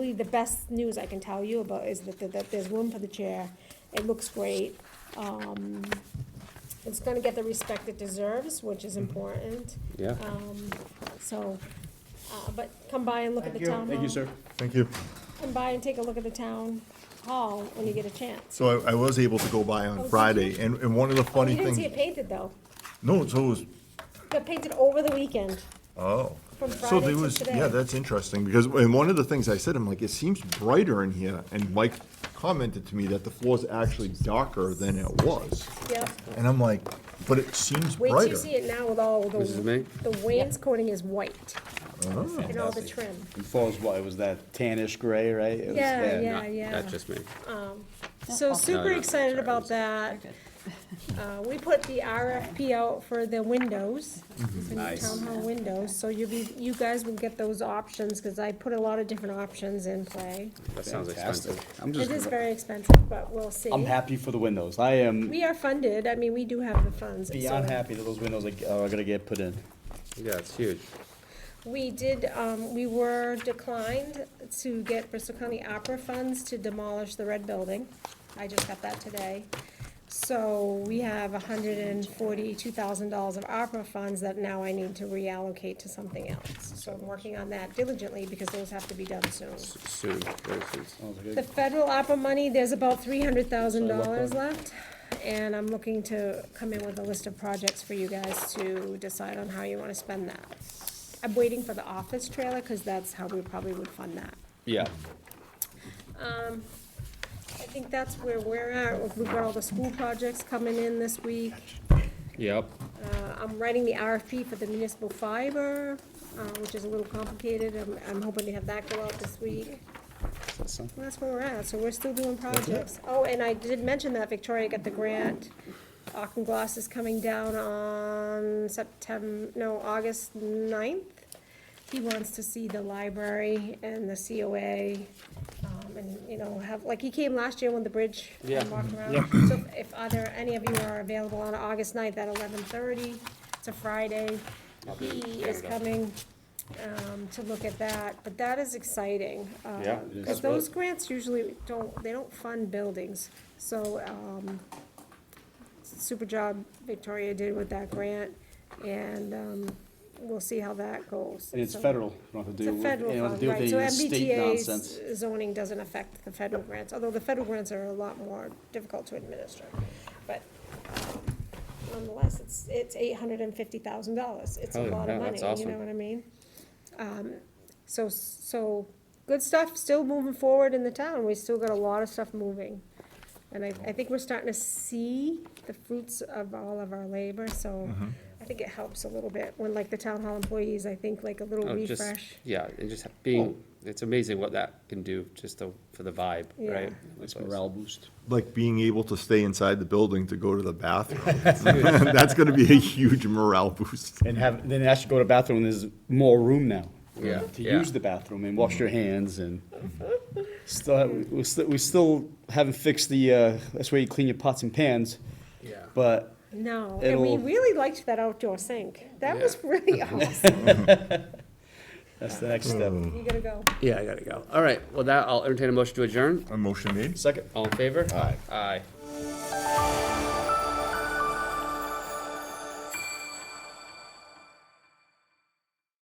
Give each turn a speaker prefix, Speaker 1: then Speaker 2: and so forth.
Speaker 1: Really, The best news I can tell you about is that, that- that there's room for the chair, it looks great. Um, It's gonna get the respect it deserves, which is important.
Speaker 2: Yeah.
Speaker 1: Um, So, uh, but come by and look at the
Speaker 3: Thank you.
Speaker 1: town hall.
Speaker 2: Thank you, sir.
Speaker 4: Thank you.
Speaker 1: Come by and take a look at the town hall when you get a chance.
Speaker 4: So I, I was able to go by
Speaker 1: did
Speaker 4: on
Speaker 1: you?
Speaker 4: Friday, and, and one of the funny
Speaker 1: You didn't see it
Speaker 4: things,
Speaker 1: painted, though.
Speaker 4: no, so it was,
Speaker 1: It got painted over the weekend,
Speaker 4: oh.
Speaker 1: from
Speaker 4: So
Speaker 1: Friday
Speaker 4: there
Speaker 1: to
Speaker 4: was,
Speaker 1: today.
Speaker 4: yeah, that's interesting, because, and one of the things I said, I'm like, it seems brighter in here, and Mike commented to me that the floor's actually darker than it was.
Speaker 1: Yep.
Speaker 4: And I'm like, but it seems
Speaker 1: Wait till
Speaker 4: brighter.
Speaker 1: you see it now with all the,
Speaker 2: Mrs. May?
Speaker 1: the wainscoting is white
Speaker 4: Oh.
Speaker 1: and all the
Speaker 3: Fantastic.
Speaker 1: trim.
Speaker 3: And Fall's, what, it was that tannish gray, right? It was-
Speaker 1: Yeah, yeah.
Speaker 2: Not- Not just me.
Speaker 1: So
Speaker 2: No, no,
Speaker 1: super
Speaker 2: no,
Speaker 1: excited
Speaker 2: sorry,
Speaker 1: about
Speaker 2: it's-
Speaker 1: that. Uh, we put the RFP out for the windows, the new
Speaker 3: Mm-hmm. Nice.
Speaker 1: town hall windows, so you'll be, you guys will get those options, cause I put a lot of different options in play.
Speaker 2: That sounds
Speaker 3: Fantastic.
Speaker 2: expensive.
Speaker 3: I'm
Speaker 1: It is
Speaker 3: just,
Speaker 1: very expensive, but we'll see.
Speaker 3: I'm happy for the windows. I am
Speaker 1: We are funded, I mean, we do have the funds. so-
Speaker 3: beyond happy that those windows are are gonna get put in.
Speaker 2: Yeah, it's huge.
Speaker 1: We did, um, we were declined to get Bristol County Opera funds to demolish the red building. I just got that today. So we have hundred and forty-two thousand dollars of opera funds that now I need to reallocate to something else. So I'm working on that diligently because those have to be done soon.
Speaker 2: Soon, very soon.
Speaker 1: The federal opera money, there's about three hundred thousand dollars left, and I'm looking to come in with a list of projects for you guys to decide on how you wanna spend that. I'm waiting for the office trailer, cause that's how we probably would fund that.
Speaker 3: Yeah.
Speaker 1: I think that's where we're at, we've got all the school projects coming in this week.
Speaker 2: Yep.
Speaker 1: Uh, I'm writing the RFP for the municipal fiber, uh, which is a little complicated, I'm, I'm hoping to have that go out this week. Well, That's where we're at, so we're still doing projects. Oh, and I did mention that Victoria got the grant. Auchen Gloss is coming down on September, no, August 9th. He wants to see the library and the COA, um, and, you know, have, like, he came last year when the bridge
Speaker 2: Yeah.
Speaker 1: and walked around. So if either, any of you are available on August 9th at 11:30, it's a Friday, he is
Speaker 2: Canada.
Speaker 1: coming um, to look at that, but that is exciting.
Speaker 2: Yeah, it is.
Speaker 1: Because those grants usually don't, they don't fund buildings, so, um, super job Victoria did with that grant, and, um, we'll see how that goes.
Speaker 3: And it's
Speaker 1: So-
Speaker 3: federal. You don't have to
Speaker 1: It's
Speaker 3: deal
Speaker 1: a
Speaker 3: with, you
Speaker 1: federal
Speaker 3: don't have to
Speaker 1: fund,
Speaker 3: deal with
Speaker 1: right, so
Speaker 3: any state nonsense.
Speaker 1: MBTA's zoning doesn't affect the federal grants, although the federal grants are a lot more difficult to administer. But nonetheless, it's, it's eight hundred and fifty thousand dollars, it's a
Speaker 2: Holy
Speaker 1: lot of
Speaker 2: cow,
Speaker 1: money,
Speaker 2: that's
Speaker 1: you
Speaker 2: awesome.
Speaker 1: know what I mean? Um, so, so, good stuff, still moving forward in the town, we still got a lot of stuff moving. And I, I think we're starting to see the fruits of all of our labor, so
Speaker 2: Mm-hmm.
Speaker 1: I think it helps a little bit, when like the town hall employees, I think like a little
Speaker 2: Oh, just-
Speaker 1: refresh.
Speaker 2: Yeah, and just being, it's amazing what that can do, just the- for the vibe,
Speaker 1: Yeah.
Speaker 2: right?
Speaker 3: It's morale boost.
Speaker 4: Like being able to stay inside the building to go to the bathroom. That's gonna be a huge morale boost.
Speaker 3: And have, then actually go to bathroom, there's more room now.
Speaker 2: Yeah,
Speaker 3: To
Speaker 2: yeah.
Speaker 3: use the bathroom and wash your hands and still, we still, we still haven't fixed the, uh, that's where you clean your pots and pans.
Speaker 2: Yeah.
Speaker 3: But
Speaker 1: No, and we
Speaker 3: It'll-
Speaker 1: really liked that outdoor sink. That
Speaker 2: Yeah.
Speaker 1: was really awesome.
Speaker 3: that's the next step.
Speaker 1: You gotta go.
Speaker 2: Yeah, I gotta go. All right, well, that, I'll entertain a motion to adjourn.
Speaker 4: A motion made?
Speaker 3: Second.
Speaker 2: All in favor?
Speaker 3: Aye.
Speaker 2: Aye.